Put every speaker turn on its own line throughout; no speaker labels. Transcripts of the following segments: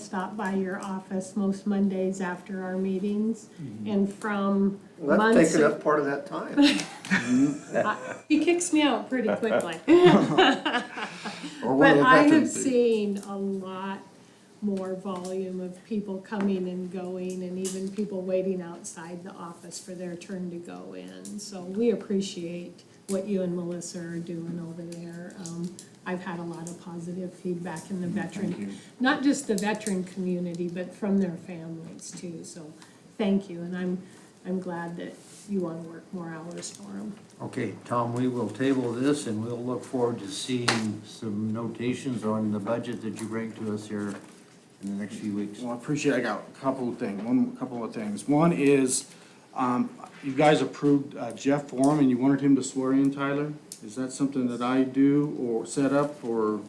stop by your office most Mondays after our meetings, and from
Well, That's
months.
taking up part of that time.
He kicks me out pretty quickly.
Or one of
But
the
I have
veterans do.
seen a lot more volume of people coming and going, and even people waiting outside the office for their turn to go in. So we appreciate what you and Melissa are doing over there. Um, I've had a lot of positive feedback in the veteran, not just the veteran community, but from their families too. So thank you, and I'm, I'm glad that you want to work more hours for them.
Okay, Tom, we will table this and we'll look forward to seeing some notations on the budget that you bring to us here in the next few weeks.
Well, I appreciate, I got a couple of things, one, a couple of things. One is, um, you guys approved uh, Jeff Forum and you wanted him to swear in Tyler? Is that something that I do or set up or?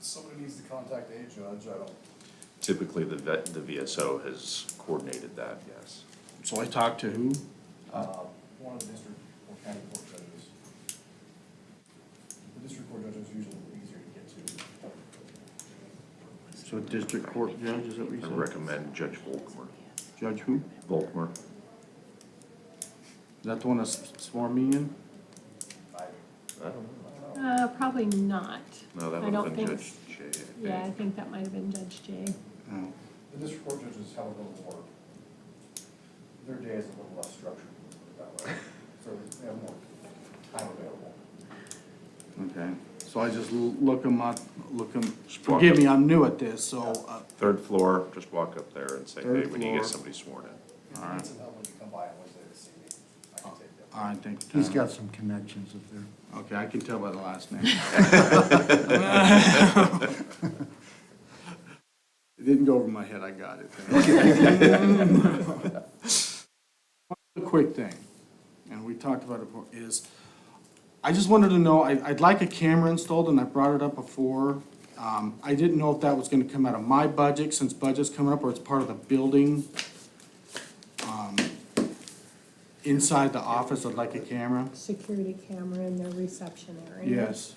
Somebody needs to contact a judge, I don't.
Typically, the vet, the VSO has coordinated that, yes.
So I talked to who?
Uh, one of the district or county court judges. The district court judge is usually easier to get to.
So district court judge, is that what you
I
said?
recommend Judge Volkmer.
Judge who? Is
Volkmer,
that the one that s- swore me in?
I,
I don't know.
Uh, probably not.
No, that
I
would
don't
have been
think
Judge
s-
J.
Yeah, I think that might have been Judge Jay.
Oh,
the district court judges have a little more, their day is a little less structured, let's put it that way, so they have more time available.
okay. So I just l- look him up, look him, forgive me, I'm new at this, so, uh,
Third floor, just walk up there and say, hey,
Third
we need to
floor.
get somebody sworn in.
All right.
It's an element to come by on Wednesday to see me, I can take that.
I think.
He's got some connections up there.
Okay, I can tell by the last name. It didn't go over my head, I got it. One Quick thing, and we talked about it before, is I just wanted to know, I, I'd like a camera installed, and I brought it up before. Um, I didn't know if that was gonna come out of my budget, since budget's coming up, or it's part of the building. Um, Inside the office, I'd like a camera.
security camera in their reception area.
Yes.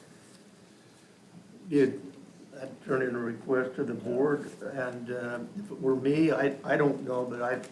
Did, i turn in a request to the board, and uh, if it were me, I, I don't know, but I've,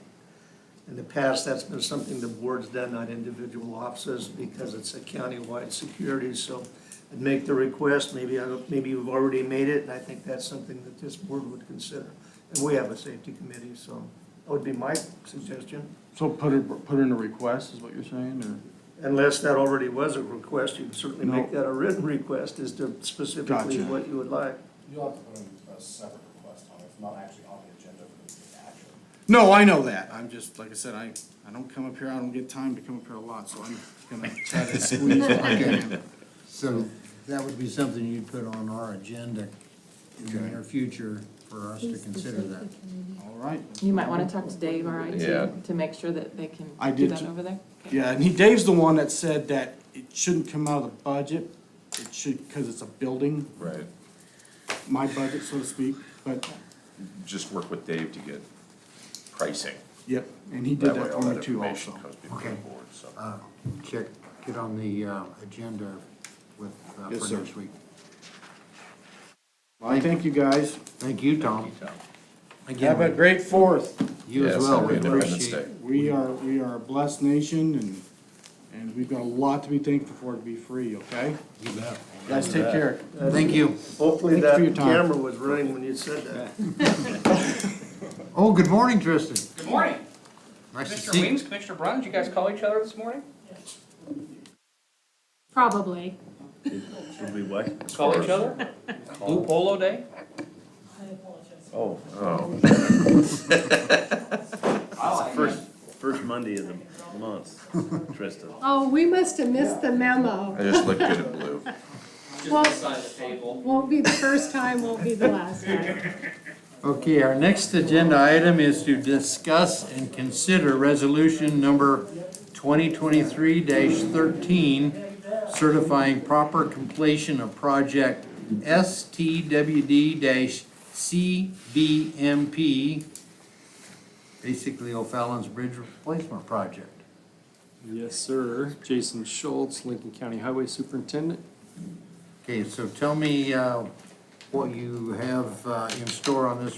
in the past, that's been something the board's done on individual offices because it's a countywide security, so I'd make the request, maybe, I don't- maybe you've already made it, and I think that's something that this board would consider. And we have a safety committee, so that would be my suggestion.
So put it, put in a request is what you're saying, or?
Unless that already was a request, you can certainly make
No.
that a written request as to specifically
Gotcha.
what you would like.
You'll have to put in a separate request on it, it's not actually on the agenda for the action.
No, I know that. I'm just, like I said, I, I don't come up here, I don't get time to come up here a lot, so I'm gonna try to squeeze what I can.
So that would be something you'd put on our agenda in the near future for us to
He's the
consider that.
safety committee.
All right.
You might wanna talk to Dave, our
Yeah.
IT, to make sure that they can
I
do
did
that
too.
over there? Okay.
Yeah, and he, Dave's the one that said that it shouldn't come out of the budget. It should, cause it's a building,
Right.
my budget, so to speak, but,
Just work with Dave to get pricing.
yep, and he did
That way,
that
all
for
that
me too
information
also.
comes before the
Okay.
board, so.
Uh, Check, get on the uh, agenda with, uh,
Yes,
for
sir.
next week.
Well, I thank you guys.
Thank you, Tom.
Have a
Again,
great fourth.
you as
Yes,
well.
happy
We
Independence
appreciate
Day.
We are, we are a blessed nation and, and we've got a lot to be thankful for to be free, okay?
You bet.
Guys, take care.
Thank you.
Hopefully
Thank you for your
that
time.
camera was running when you said that.
Oh, good morning, Tristan.
Good morning.
Nice to
Mr.
see you.
Weems, Commissioner Brown, did you guys call each other this morning?
Probably.
Should we what?
Call each other? Blue Polo Day?
Oh, oh,
First, first Monday of the month, Trista.
Oh, we must have missed the memo.
I just looked good in blue.
Well,
the table.
won't be the first time, won't be the last time.
Okay, our next agenda item is to discuss and consider resolution number 2023-13, certifying proper completion of project STWD-CBMP, basically O'Fallon's Bridge Replacement Project.
Yes, sir. Jason Schultz, Lincoln County Highway Superintendent.
Okay, so tell me, uh, what you have uh, in store on this